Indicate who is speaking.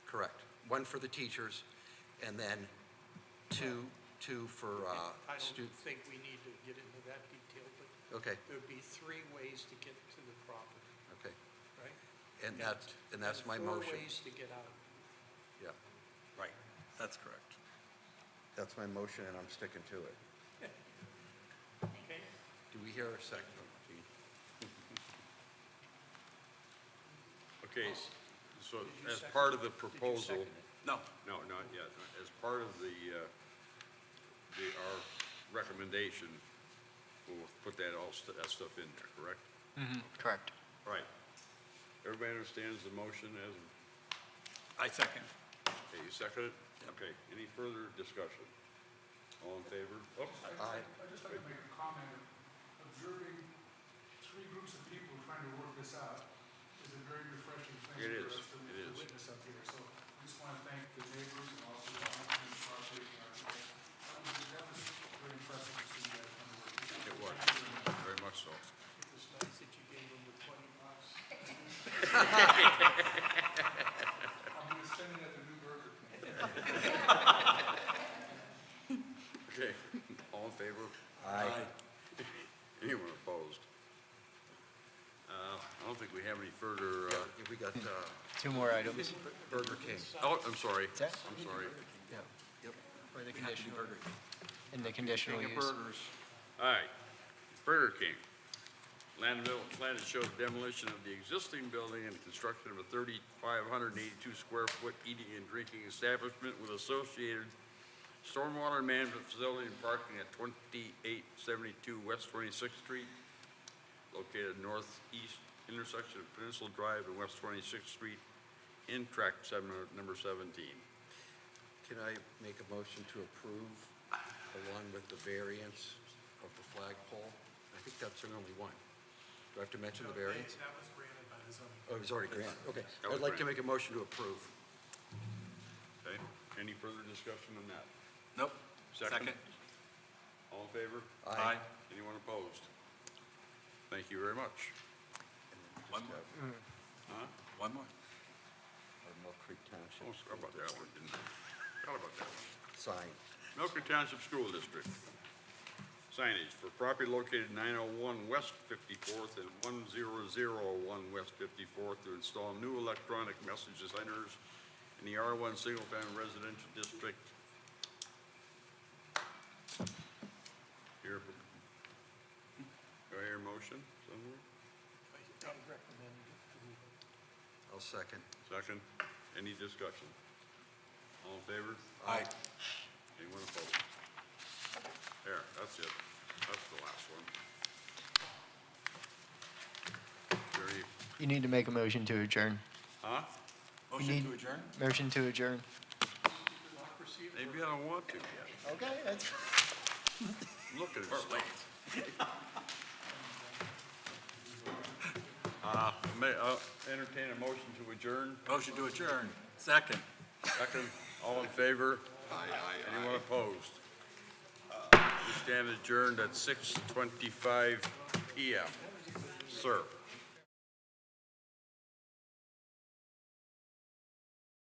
Speaker 1: Correct. One for the teachers, and then two, two for uh,
Speaker 2: I don't
Speaker 1: students.
Speaker 2: think we need to get into that detail, but
Speaker 1: Okay,
Speaker 2: there'd be three ways to get to the property,
Speaker 1: okay.
Speaker 2: right?
Speaker 1: And that's, and that's my
Speaker 2: Four
Speaker 1: motion.
Speaker 2: ways to get out.
Speaker 1: Yeah,
Speaker 3: Right, that's correct.
Speaker 1: that's my motion, and I'm sticking to it.
Speaker 2: Okay?
Speaker 1: Do we hear a second? Gene?
Speaker 4: Okay, s- so
Speaker 2: Did you
Speaker 4: as
Speaker 2: second-
Speaker 4: part of the
Speaker 2: did you
Speaker 4: proposal,
Speaker 2: second it?
Speaker 3: No,
Speaker 4: no, not yet, as part of the, uh, the, our recommendation, we'll put that all, st- that stuff in there, correct?
Speaker 5: Correct.
Speaker 4: All right. Everybody understands the motion as,
Speaker 3: I second.
Speaker 4: okay, you second it? Okay, any further discussion? All in favor? Oops,
Speaker 1: Aye.
Speaker 6: I'd just like to make a comment. Observing three groups of people trying to work this out is a very refreshing thing
Speaker 4: It is.
Speaker 6: for us to
Speaker 4: It
Speaker 6: to
Speaker 4: is.
Speaker 6: witness up here. So I just want to thank the neighbors and also the owners of our state. That was very impressive to see you guys come to work.
Speaker 4: it was, very much so.
Speaker 2: It was nice that you gave them the twenty bucks.
Speaker 6: I'm going to send it at the new burger.
Speaker 4: Okay, all in favor? Aye. Anyone opposed? Uh, I don't think we have any further, uh,
Speaker 1: Yeah, We got uh,
Speaker 5: Two more items.
Speaker 1: Burger King.
Speaker 4: oh, I'm sorry,
Speaker 5: that?
Speaker 4: I'm sorry.
Speaker 5: Yeah.
Speaker 1: Yep.
Speaker 5: For
Speaker 1: We have
Speaker 5: the
Speaker 1: to do
Speaker 5: conditional,
Speaker 1: Burger King.
Speaker 5: in the conditional
Speaker 1: King of
Speaker 5: use.
Speaker 1: Burgers.
Speaker 4: All right, Burger King. Land development plan to show demolition of the existing building and construction of a 3,582 square foot eating and drinking establishment with associated stormwater management facility and parking at 2872 West 26th Street, located northeast intersection of Peninsula Drive and West 26th Street, in tract seven- number 17.
Speaker 1: Can I make a motion to approve along with the variance of the flagpole? I think that's the only one. Do I have to mention the variance?
Speaker 6: That was granted by the zoning.
Speaker 1: Oh, it was already granted, okay.
Speaker 4: That
Speaker 1: I'd
Speaker 4: was
Speaker 1: like to make
Speaker 4: granted.
Speaker 1: a motion to approve.
Speaker 4: Okay, any further discussion on that?
Speaker 3: Nope.
Speaker 4: Second. All in favor?
Speaker 3: Aye.
Speaker 4: Anyone opposed? Thank you very much.
Speaker 3: One more.
Speaker 5: Mm.
Speaker 4: Huh?
Speaker 3: One more.
Speaker 1: Our Mill Creek Township.
Speaker 4: Oh, forgot about that one, didn't I? Forgot about that one.
Speaker 1: Sign.
Speaker 4: Milton Township School District. Signage for property located 901 West 54th and 1001 West 54th to install new electronic message designers in the R1 Single Family Residential District. Here, do I hear a motion somewhere?
Speaker 2: I I recommend it.
Speaker 1: I'll second.
Speaker 4: Second, any discussion? All in favor?
Speaker 1: Aye.
Speaker 4: Anyone opposed? There, that's it. That's the last one. Very,
Speaker 5: You need to make a motion to adjourn.
Speaker 4: huh?
Speaker 3: Motion
Speaker 5: need-
Speaker 3: to adjourn?
Speaker 5: Motion to adjourn.
Speaker 2: Democracy or
Speaker 4: Maybe I don't want to yet.
Speaker 5: Okay, that's.
Speaker 4: Look at it.
Speaker 3: Or wait.
Speaker 4: Uh, may, uh, entertain a motion to adjourn.
Speaker 3: Motion to adjourn. Second.
Speaker 4: Second, all in favor? Aye, aye, Anyone opposed? Uh, We stand adjourned at six twenty-five PM. Sir.